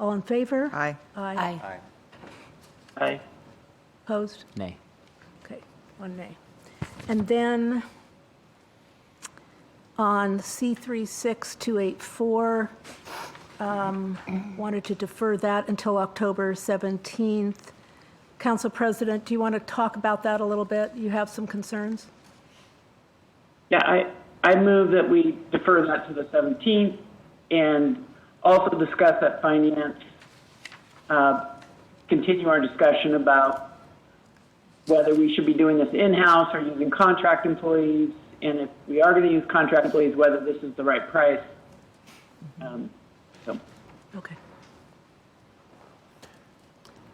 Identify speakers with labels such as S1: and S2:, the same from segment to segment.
S1: All in favor?
S2: Aye.
S1: Aye.
S3: Aye.
S4: Aye.
S1: Opposed?
S3: Nay.
S1: Okay, one nay. And then on C36284, um, wanted to defer that until October 17th. Council President, do you want to talk about that a little bit? You have some concerns?
S4: Yeah, I, I move that we defer that to the 17th and also discuss at finance, uh, continue our discussion about whether we should be doing this in-house or using contract employees, and if we are going to use contract employees, whether this is the right price. Um, So,
S1: Okay.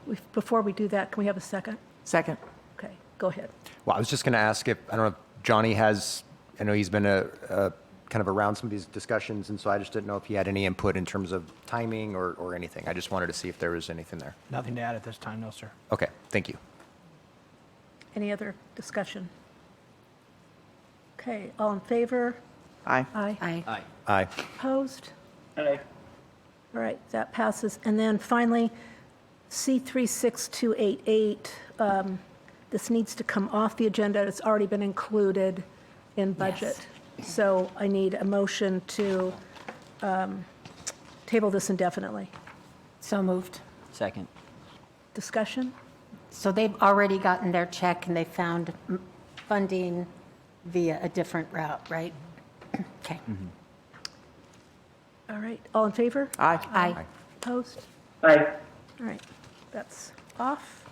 S1: We- Before we do that, can we have a second?
S2: Second.
S1: Okay, go ahead.
S5: Well, I was just going to ask if, I don't know, if Johnny has, I know he's been a, a kind of around some of these discussions, and so I just didn't know if he had any input in terms of timing or, or anything. I just wanted to see if there was anything there.
S6: Nothing to add at this time, no, sir.
S5: Okay, thank you.
S1: Any other discussion? Okay, all in favor?
S2: Aye.
S1: Aye.
S3: Aye.
S5: Aye.
S1: Opposed?
S4: aye.
S1: All right, that passes. And then finally, C36288, um, this needs to come off the agenda. It's already been included in budget. So I need a motion to um, table this indefinitely.
S7: So moved.
S3: Second.
S1: Discussion?
S7: So they've already gotten their check and they found mm, funding via a different route, right? Okay.
S5: Mm-hmm.
S1: All right, all in favor?
S2: Aye.
S7: Aye.
S1: Opposed?
S4: Aye.
S1: All right, that's off.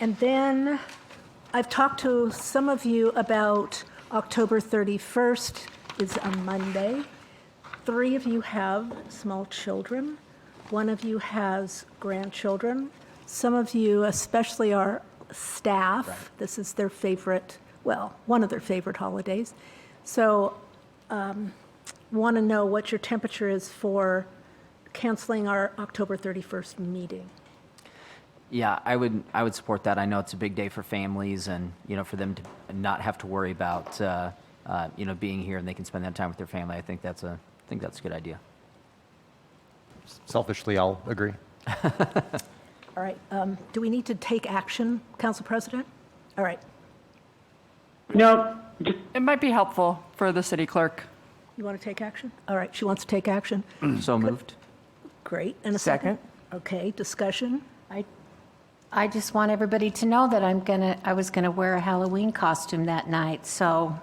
S1: And then I've talked to some of you about October 31st is a Monday. Three of you have small children. One of you has grandchildren. Some of you, especially our staff, this is their favorite, well, one of their favorite holidays. So want to know what your temperature is for canceling our October 31st meeting.
S3: Yeah, I would, I would support that. I know it's a big day for families and, you know, for them to not have to worry about, uh, uh, you know, being here and they can spend that time with their family. I think that's a, I think that's a good idea.
S5: Selfishly, I'll agree.
S1: All right, um, do we need to take action, Council President? All right,
S4: No, just
S8: It might be helpful for the city clerk.
S1: you want to take action? All right, she wants to take action.
S3: So moved.
S1: Great, and a second? Okay, discussion?
S7: I, I just want everybody to know that I'm gonna, I was gonna wear a Halloween costume that night, so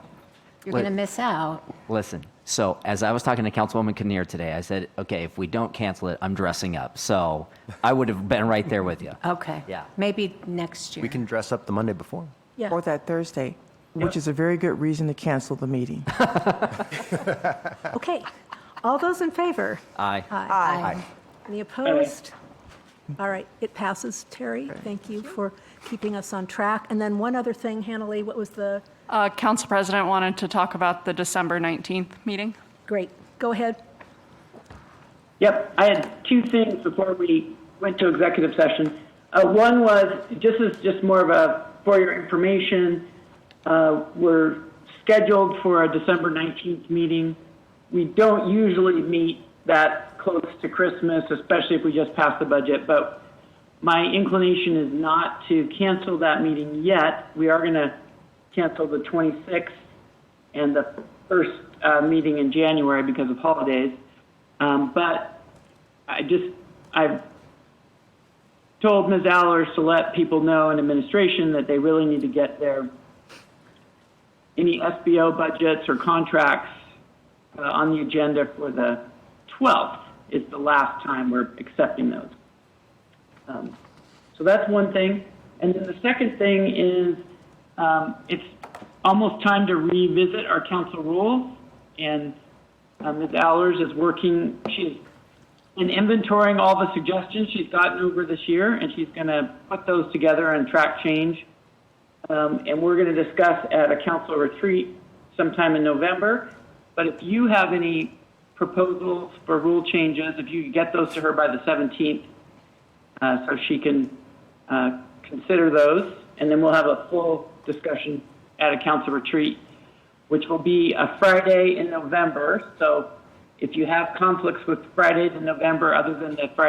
S7: you're
S3: Wait.
S7: gonna miss out.
S3: Listen, so as I was talking to Councilwoman Kinnear today, I said, okay, if we don't cancel it, I'm dressing up. So I would have been right there with you.
S7: Okay.
S3: Yeah.
S7: Maybe next year.
S5: We can dress up the Monday before.
S1: Yeah,
S2: Or that Thursday, which is a very good reason to cancel the meeting.
S1: okay. All those in favor?
S3: Aye.
S1: Aye.
S7: Aye.
S1: Any opposed? All right, it passes. Terry, thank you for keeping us on track. And then one other thing, Hannah Lee, what was the,
S8: Uh, Council President wanted to talk about the December 19th meeting.
S1: great, go ahead.
S4: Yep, I had two things before we went to executive session. Uh, one was, this is just more of a, for your information, uh, we're scheduled for a December 19th meeting. We don't usually meet that close to Christmas, especially if we just pass the budget, but my inclination is not to cancel that meeting yet. We are going to cancel the 26th and the first uh, meeting in January because of holidays. Um, but I just, I've told Ms. Allers to let people know in administration that they really need to get their, any SBO budgets or contracts uh, on the agenda for the 12th is the last time we're accepting those. Um, so that's one thing. And then the second thing is um, it's almost time to revisit our council rules. And uh, Ms. Allers is working, she's in inventorying all the suggestions she's gotten over this year, and she's going to put those together and track change. Um, and we're going to discuss at a council retreat sometime in November. But if you have any proposals for rule changes, if you could get those to her by the 17th, uh, so she can uh, consider those, and then we'll have a full discussion at a council retreat, which will be a Friday in November. So if you have conflicts with Fridays in November, other than the Friday